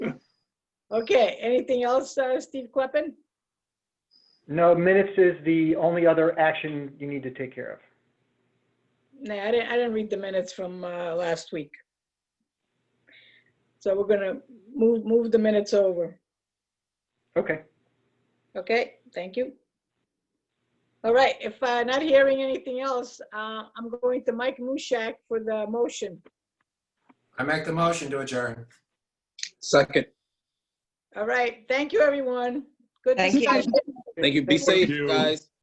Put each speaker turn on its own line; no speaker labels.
Okay, anything else, uh, Steve Kleppen?
No, minutes is the only other action you need to take care of.
No, I didn't, I didn't read the minutes from uh, last week. So we're gonna move, move the minutes over.
Okay.
Okay, thank you. All right, if uh, not hearing anything else, uh, I'm going to Mike Mushak for the motion.
I make the motion to adjourn.
Second.
All right, thank you, everyone. Good
Thank you.
discussion.
Thank you. Be
Thank
safe,
you.
guys.